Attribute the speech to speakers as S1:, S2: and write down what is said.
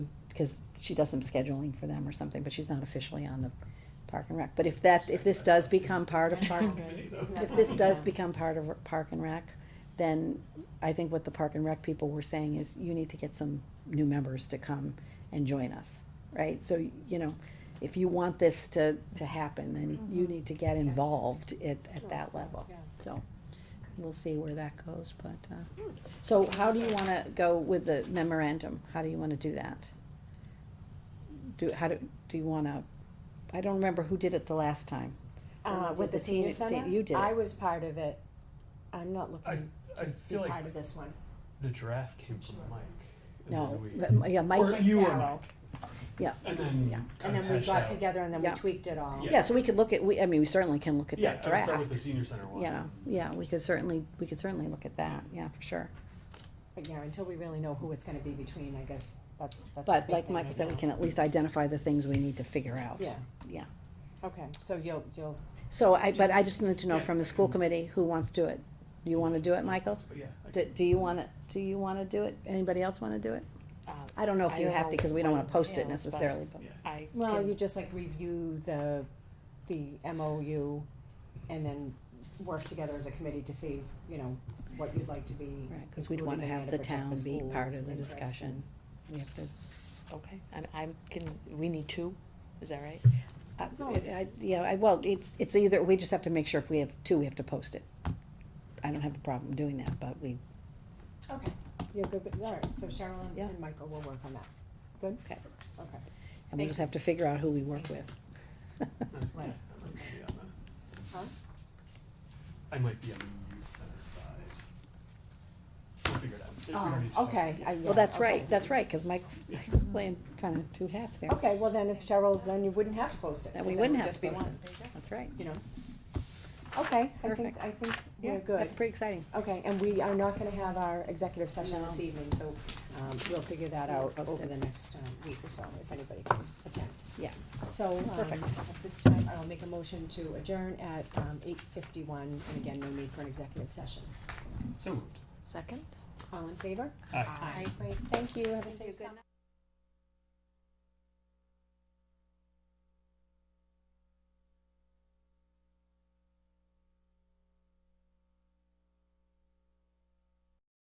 S1: because she does some scheduling for them or something, but she's not officially on the Park and Rec. But if that, if this does become part of Park, if this does become part of Park and Rec, then I think what the Park and Rec people were saying is you need to get some new members to come and join us, right? So, you know, if you want this to, to happen, then you need to get involved at, at that level.
S2: Yeah.
S1: So, we'll see where that goes, but, uh, so how do you wanna go with the memorandum? How do you wanna do that? Do, how do, do you wanna, I don't remember who did it the last time. Or
S2: Uh,
S1: did
S2: with the senior
S1: se-
S2: center?
S1: You did
S2: I
S1: it.
S2: was part of it. I'm not
S3: I,
S2: looking
S3: I
S2: to be
S3: feel like
S2: part of this one.
S3: the draft came from Mike. and
S1: No,
S3: then we-
S1: but- yeah,
S3: Or
S1: Mike,
S3: you or
S2: Farrell.
S3: Mike.
S1: Yeah.
S3: And then.
S1: Yeah.
S2: And
S3: kinda
S2: then we
S3: hashed
S2: got
S3: out-
S2: together and then we
S1: Yeah.
S2: tweaked it all.
S3: Yeah.
S1: yeah, so we could look at, we, I mean, we certainly can look at
S3: Yeah,
S1: that
S3: I would start with the
S1: draft.
S3: senior center one.
S1: Yeah, yeah, we could certainly, we could certainly look at that, yeah, for sure.
S2: But yeah, until we really know who it's gonna be between, I guess, that's, that's. the
S1: But
S2: big
S1: like
S2: thing
S1: Michael
S2: right
S1: said, we
S2: now.
S1: can at least identify the things we need to figure out.
S2: Yeah,
S1: Yeah.
S2: okay, so you'll, you'll,
S1: So I, but I just need to know
S3: Yeah.
S1: from the school committee who wants to do it. Do you wanna do it, Michael?
S3: But yeah. I-
S1: Do, do you wanna, do you wanna do it? Anybody else wanna do it?
S4: Uh,
S1: I don't know if
S4: I
S1: you
S4: don't
S1: have to,
S4: know
S1: cause we don't
S4: what
S1: wanna post it
S4: entails, but-
S1: necessarily, but,
S3: Yeah.
S4: I
S2: well,
S4: can-
S2: you just like review the, the MOU and then work together as a committee to see, you know, what you'd like to be.
S1: right, cause we'd
S2: included
S1: wanna
S2: in there
S1: have
S2: to
S1: the
S2: protect
S1: town be
S2: school's
S1: part of the
S2: interest
S1: discussion.
S2: and-
S1: We have to,
S4: okay, and I can, we need two, is that right?
S1: I-
S2: No.
S1: Uh, I, yeah, I, well, it's, it's either, we just have to make sure if we have two, we have to post it. I don't have a problem doing that, but we,
S2: Okay, you're good, but, all right, so Cheryl and-
S1: Yeah.
S2: and Michael will work on that. Good?
S1: Okay.
S2: Okay.
S1: and we
S2: Thank
S1: just have to figure out who we work with.
S3: Nice,
S2: Right.
S3: yeah, I might be on the-
S2: Huh?
S3: I might be on the youth center side. We'll figure it out. We don't need to
S2: Oh,
S3: talk
S2: okay,
S3: about
S2: I,
S3: it.
S2: yeah.
S1: Well, that's
S2: okay.
S1: right, that's right, cause Michael's, Michael's playing kinda two hats there.
S2: Okay, well then if Cheryl's, then you wouldn't have to post it.
S1: Then we
S2: 'cause
S1: wouldn't
S2: would
S1: have
S2: just
S1: to
S2: be
S1: post
S2: one,
S1: That's right.
S2: You know? Okay, I think,
S1: Perfect.
S2: I think
S1: Yeah,
S2: we're good.
S1: That's pretty exciting.
S2: Okay, and we are not gonna have our executive session
S1: No.
S2: this evening, so, um, we'll figure that
S1: We'll
S2: out
S1: post
S2: over
S1: it.
S2: the next, um, week or so, if anybody can attend.
S1: Yeah.
S2: So, um,
S1: Perfect.
S2: at this time, I'll make a motion to adjourn at, um, eight fifty-one, and again, no need for an executive session.
S3: So moved.
S4: Second?
S2: All in favor?
S3: Aye.
S2: Great, thank you, have a safe summer.